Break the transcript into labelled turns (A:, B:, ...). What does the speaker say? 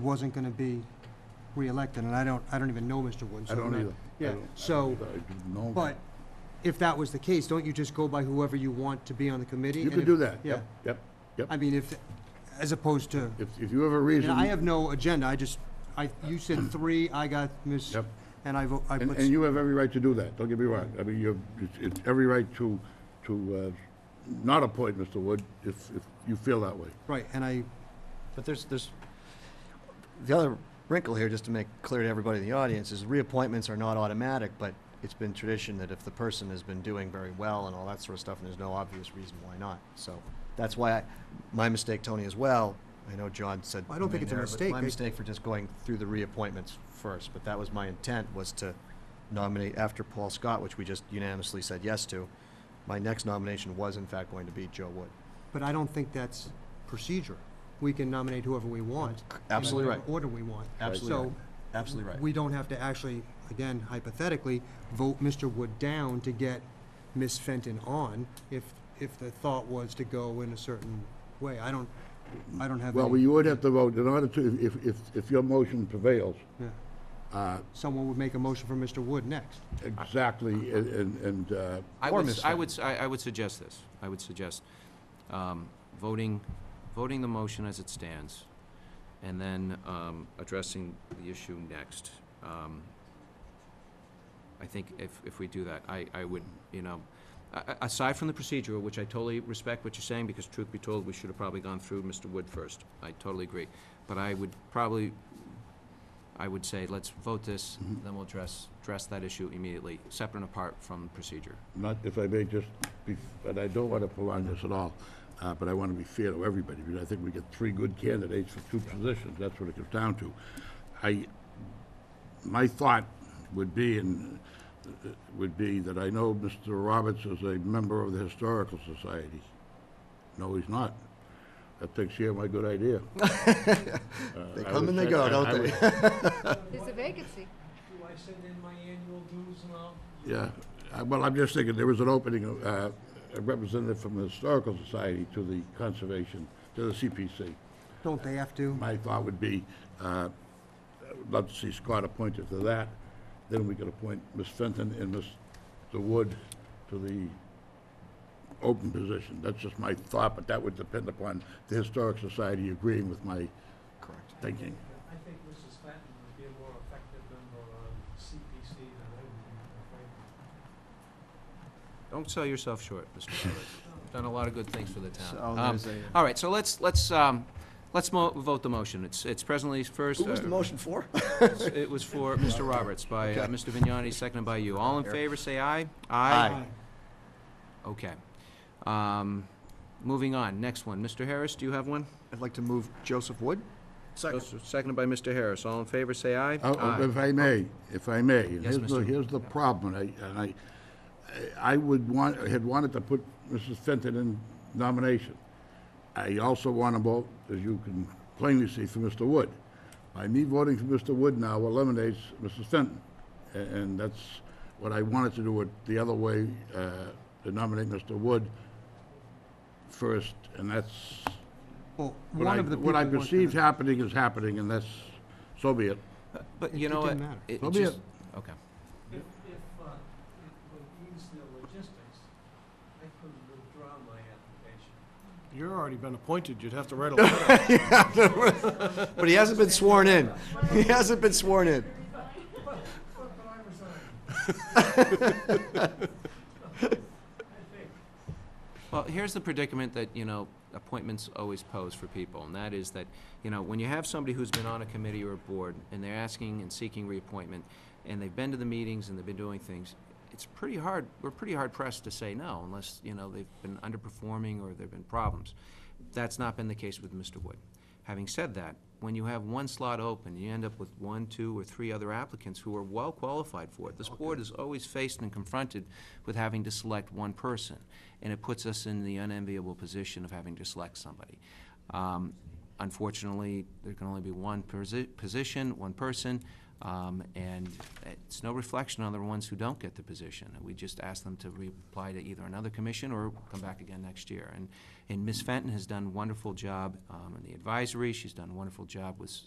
A: wasn't gonna be reelected, and I don't, I don't even know Mr. Wood. so
B: I
A: I'm
B: don't
A: not-
B: either. I
A: Yeah,
B: don't- I
A: so,
B: don't even know.
A: but if that was the case, don't you just go by whoever you want to be on the committee?
B: You
A: And
B: could
A: if-
B: do that,
A: Yeah,
B: yep, yep, yep.
A: I mean, if, as opposed to,
B: If, if you have a reason.
A: and I have no agenda, I just, I, you said three, I got Ms.,
B: Yep.
A: and I vote, I
B: And,
A: put,
B: and you have every right to do that, don't get me wrong. I mean, you have, it's- it's every right to, to uh, not appoint Mr. Wood if, if you feel that way.
A: right, and I,
C: But there's, there's, the other wrinkle here, just to make clear to everybody in the audience, is reappointments are not automatic, but it's been tradition that if the person has been doing very well and all that sort of stuff, and there's no obvious reason why not. So that's why I, my mistake, Tony, as well, I know John said.
A: I don't think it's a
C: there, but
A: mistake.
C: My
A: They-
C: mistake for just going through the reappointments first, but that was my intent, was to nominate after Paul Scott, which we just unanimously said yes to. My next nomination was in fact going to be Joe Wood.
A: but I don't think that's procedure. We can nominate whoever we want.
C: Absolutely
A: In
C: right.
A: whatever order we want.
C: Absolutely right.
A: So,
C: Absolutely right.
A: we don't have to actually, again hypothetically, vote Mr. Wood down to get Ms. Fenton on if, if the thought was to go in a certain way. I don't, I don't have
B: Well,
A: any,
B: you would have to vote in order to, if, if, if your motion prevails,
A: yeah.
B: uh,
A: someone would make a motion for Mr. Wood next.
B: exactly, and- and, and, uh,
D: I
C: Or
D: would,
C: Ms.
D: I would, s- I I would suggest this. I would suggest um, voting, voting the motion as it stands, and then um, addressing the issue next. Um, I think if, if we do that, I, I would, you know, a- a- aside from the procedural, which I totally respect what you're saying, because truth be told, we should have probably gone through Mr. Wood first. I totally agree. But I would probably, I would say, let's vote this, then we'll address, address that issue immediately, separate and apart from procedure.
B: not, if I may just, be- and I don't want to prolong this at all, uh, but I want to be fair to everybody, because I think we get three good candidates for two positions, that's what it comes down to. I, my thought would be, and, uh, would be that I know Mr. Roberts is a member of the Historical Society. No, he's not. That takes care of my good idea. Uh,
C: They
B: I
C: come
B: would
C: and they
B: say-
C: go,
B: I- I
C: don't
B: would-
C: they?
E: There's a vacancy.
F: Do I send in my annual dues now?
B: Yeah, Uh, well, I'm just thinking, there was an opening, uh, a representative from the Historical Society to the Conservation, to the CPC.
A: Don't they have to?
B: My thought would be, uh, I would love to see Scott appointed to that, then we could appoint Ms. Fenton and Mr. Wood to the open position. That's just my thought, but that would depend upon the Historic Society agreeing with my
C: Correct.
B: thinking.
F: I think Mrs. Fenton would be a more effective member on CPC than I would be, frankly.
D: Don't sell yourself short, Mr. Roberts. Done a lot of good things for the town.
C: So
D: Um,
C: there's a-
D: All right, so let's, let's, um, let's mo- vote the motion. It's, it's presently first.
C: Who was
D: uh,
C: the motion for?
D: It was for Mr. Roberts by uh,
C: Okay.
D: Mr. Vignani, seconded by you. All in favor, say aye.
C: Aye.
D: Okay. Um, Moving on, next one. Mr. Harris, do you have one?
C: I'd like to move Joseph Wood.
D: Second. Seconded by Mr. Harris. All in favor, say aye.
B: Oh, oh, If I may, if I may, and
D: Yes,
B: here's the,
D: Mr.
B: here's the problem, and I, and I, I would want, I had wanted to put Mrs. Fenton in nomination. I also want to vote, as you can plainly see, for Mr. Wood. By me voting for Mr. Wood now eliminates Mrs. Fenton, a- and that's what I wanted to do it the other way, uh, to nominate Mr. Wood first, and that's
A: Well,
B: what
A: one
B: I,
A: of the people.
B: what I
A: wants to-
B: perceived happening is happening, and that's, so be it.
A: It-
D: But you
A: it
D: know what?
A: didn't matter.
D: It
B: So be
D: just, okay.
F: If, if, uh, it would ease the logistics, I could withdraw my application.
G: You're already been appointed, you'd have to write a letter.
C: But he hasn't been sworn in. He hasn't been sworn in.
F: But, but I resigned. I think.
D: Well, here's the predicament that, you know, appointments always pose for people, and that is that, you know, when you have somebody who's been on a committee or a board, and they're asking and seeking reappointment, and they've been to the meetings and they've been doing things, it's pretty hard, we're pretty hard pressed to say no unless, you know, they've been underperforming or there've been problems. That's not been the case with Mr. Wood. Having said that, when you have one slot open, you end up with one, two, or three other applicants who are well qualified for it. This board is always faced and confronted with having to select one person, and it puts us in the unenviable position of having to select somebody. Um, Unfortunately, there can only be one posi- position, one person, um, and it's no reflection on the ones who don't get the position. We just ask them to reapply to either another commission or come back again next year. And, and Ms. Fenton has done a wonderful job um, in the advisory. She's done a wonderful job with